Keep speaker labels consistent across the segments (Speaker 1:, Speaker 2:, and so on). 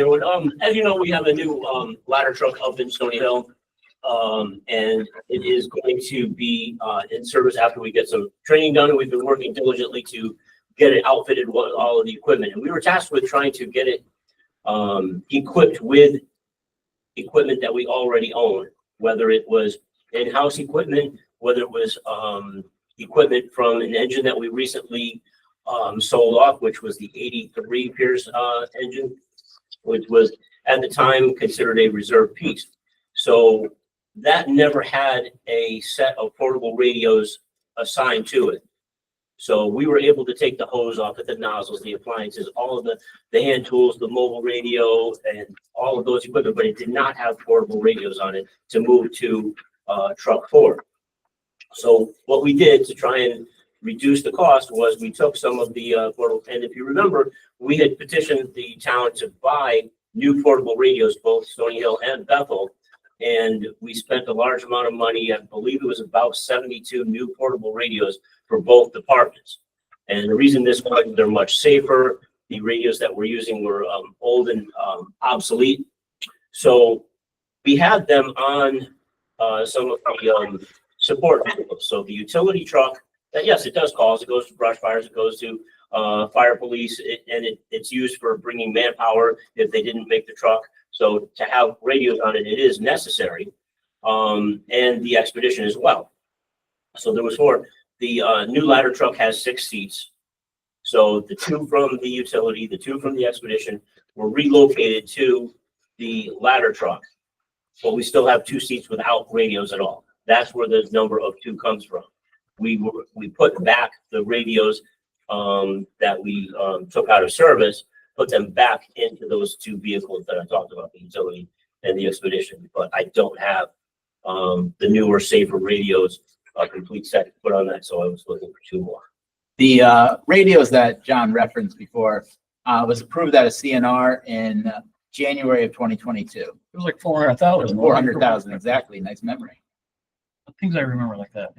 Speaker 1: Everyone, um, as you know, we have a new, um, ladder truck up in Stony Hill. Um, and it is going to be, uh, in service after we get some training done. We've been working diligently to get it outfitted with all of the equipment. And we were tasked with trying to get it, um, equipped with equipment that we already own, whether it was in-house equipment, whether it was, um, equipment from an engine that we recently, um, sold off, which was the eighty-three Pierce, uh, engine which was at the time considered a reserve piece. So that never had a set of portable radios assigned to it. So we were able to take the hose off of the nozzles, the appliances, all of the, the hand tools, the mobile radio and all of those equipment, but it did not have portable radios on it to move to, uh, truck four. So what we did to try and reduce the cost was we took some of the, uh, portable, and if you remember, we had petitioned the town to buy new portable radios, both Stony Hill and Bethel. And we spent a large amount of money, I believe it was about seventy-two new portable radios for both departments. And the reason this one, they're much safer, the radios that we're using were um old and um obsolete. So we had them on uh some of the um support vehicles, so the utility truck, that yes, it does calls, it goes to brush fires, it goes to uh, fire police, it- and it, it's used for bringing manpower if they didn't make the truck. So to have radios on it, it is necessary, um, and the expedition as well. So there was four. The, uh, new ladder truck has six seats. So the two from the utility, the two from the expedition were relocated to the ladder truck. But we still have two seats without radios at all. That's where the number of two comes from. We were, we put back the radios um, that we, um, took out of service, put them back into those two vehicles that I talked about, the utility and the expedition, but I don't have, um, the newer safer radios, a complete set to put on that, so I was looking for two more.
Speaker 2: The uh, radios that John referenced before uh, was approved at a CNR in uh, January of 2022.
Speaker 3: It was like four hundred thousand.
Speaker 2: 400,000 exactly. Nice memory.
Speaker 3: Things I remember like that.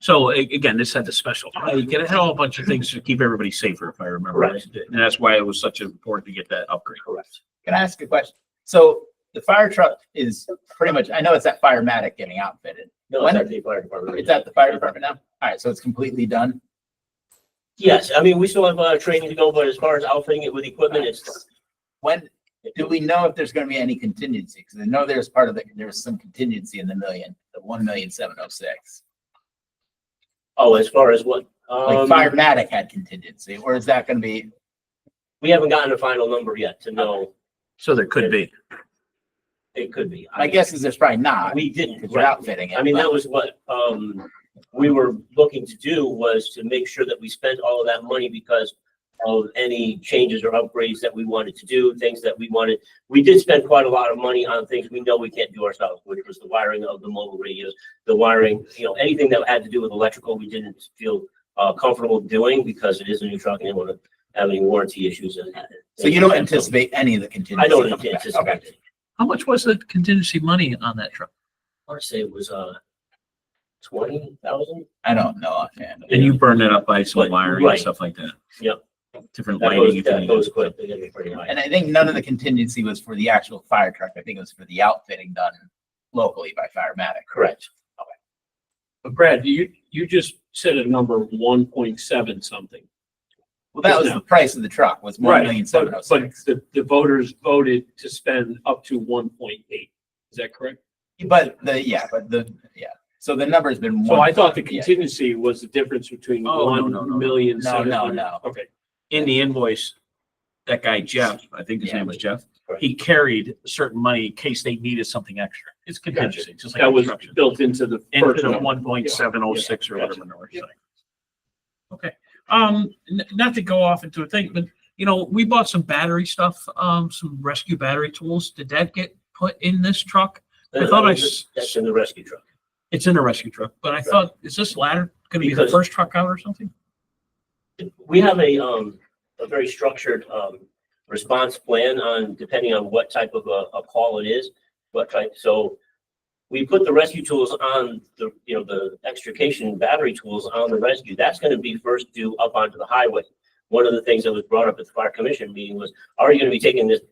Speaker 4: So a- again, this had the special, it had a whole bunch of things to keep everybody safer, if I remember. right. And that's why it was such important to get that upgrade.
Speaker 1: Correct.
Speaker 2: Can I ask a question? So the fire truck is pretty much, I know it's at Firematic getting outfitted.
Speaker 1: No, it's at the fire department.
Speaker 2: It's at the fire department now? All right, so it's completely done?
Speaker 1: Yes, I mean, we still have, uh, training to go, but as far as outfitting it with equipment, it's.
Speaker 2: When, do we know if there's going to be any contingency? Because I know there's part of the, there was some contingency in the million, the 1,706.
Speaker 1: Oh, as far as what?
Speaker 2: Like
Speaker 1: Um,
Speaker 2: Firematic had contingency, or is that going to be
Speaker 1: we haven't gotten a final number yet to know,
Speaker 4: So there could be.
Speaker 1: it could be.
Speaker 2: My guess is there's probably not,
Speaker 1: We didn't.
Speaker 2: because you're
Speaker 1: right.
Speaker 2: outfitting it.
Speaker 1: I mean,
Speaker 2: but-
Speaker 1: that was what, um, we were looking to do was to make sure that we spent all of that money because of any changes or upgrades that we wanted to do, things that we wanted. We did spend quite a lot of money on things we know we can't do ourselves, which was the wiring of the mobile radios, the wiring, you know, anything that had to do with electrical, we didn't feel uh, comfortable doing because it is a new truck and it would have any warranty issues and that.
Speaker 2: So you don't anticipate any of the contingency?
Speaker 1: I don't
Speaker 2: coming back.
Speaker 1: anticipate.
Speaker 2: Okay.
Speaker 1: it.
Speaker 4: How much was the contingency money on that truck?
Speaker 1: I want to say it was, uh, twenty thousand?
Speaker 2: I don't know offhand.
Speaker 4: And you burned it up by some
Speaker 1: But-
Speaker 4: wiring and
Speaker 1: right.
Speaker 4: stuff like that.
Speaker 1: Yep.
Speaker 4: Different
Speaker 1: That
Speaker 4: lighting.
Speaker 1: goes,
Speaker 4: you
Speaker 1: that
Speaker 4: can-
Speaker 1: goes quick. They get me pretty high.
Speaker 2: And I think none of the contingency was for the actual fire truck. I think it was for the outfitting done locally by Firematic.
Speaker 1: Correct.
Speaker 5: But Brad, you, you just said a number one point seven something.
Speaker 2: Well, that was the price of the truck, was one million seven oh
Speaker 5: But, but
Speaker 2: six.
Speaker 5: the, the voters voted to spend up to one point eight. Is that correct?
Speaker 2: But the, yeah, but the, yeah. So the number's been.
Speaker 5: So I thought the
Speaker 2: Yeah.
Speaker 5: contingency was the difference between
Speaker 4: Oh, no, no, no, no.
Speaker 5: one million
Speaker 2: No,
Speaker 5: seven.
Speaker 2: no, no.
Speaker 5: Okay,
Speaker 4: In the invoice, that guy Jeff, I think his
Speaker 2: Yeah.
Speaker 4: name was Jeff,
Speaker 1: Correct.
Speaker 4: he carried certain money in case they needed something extra. It's contingency, just like.
Speaker 5: that was
Speaker 4: construction.
Speaker 5: built into the
Speaker 4: into
Speaker 5: first
Speaker 4: the
Speaker 5: number.
Speaker 4: one point seven oh six or
Speaker 5: Yeah.
Speaker 4: whatever number. it's like. Okay, um, n- not to go off into a thing, but you know, we bought some battery stuff, um, some rescue battery tools. Did that get put in this truck? I thought I s-
Speaker 1: That's in the rescue truck.
Speaker 4: It's in a rescue truck, but I thought, is this ladder gonna be the
Speaker 1: Because-
Speaker 4: first truck out or something?
Speaker 1: We have a, um, a very structured, um, response plan on, depending on what type of a, a call it is. What type, so we put the rescue tools on the, you know, the extrication battery tools on the rescue. That's gonna be first due up onto the highway. one of the things that was brought up at the fire commission meeting was, are you gonna be taking this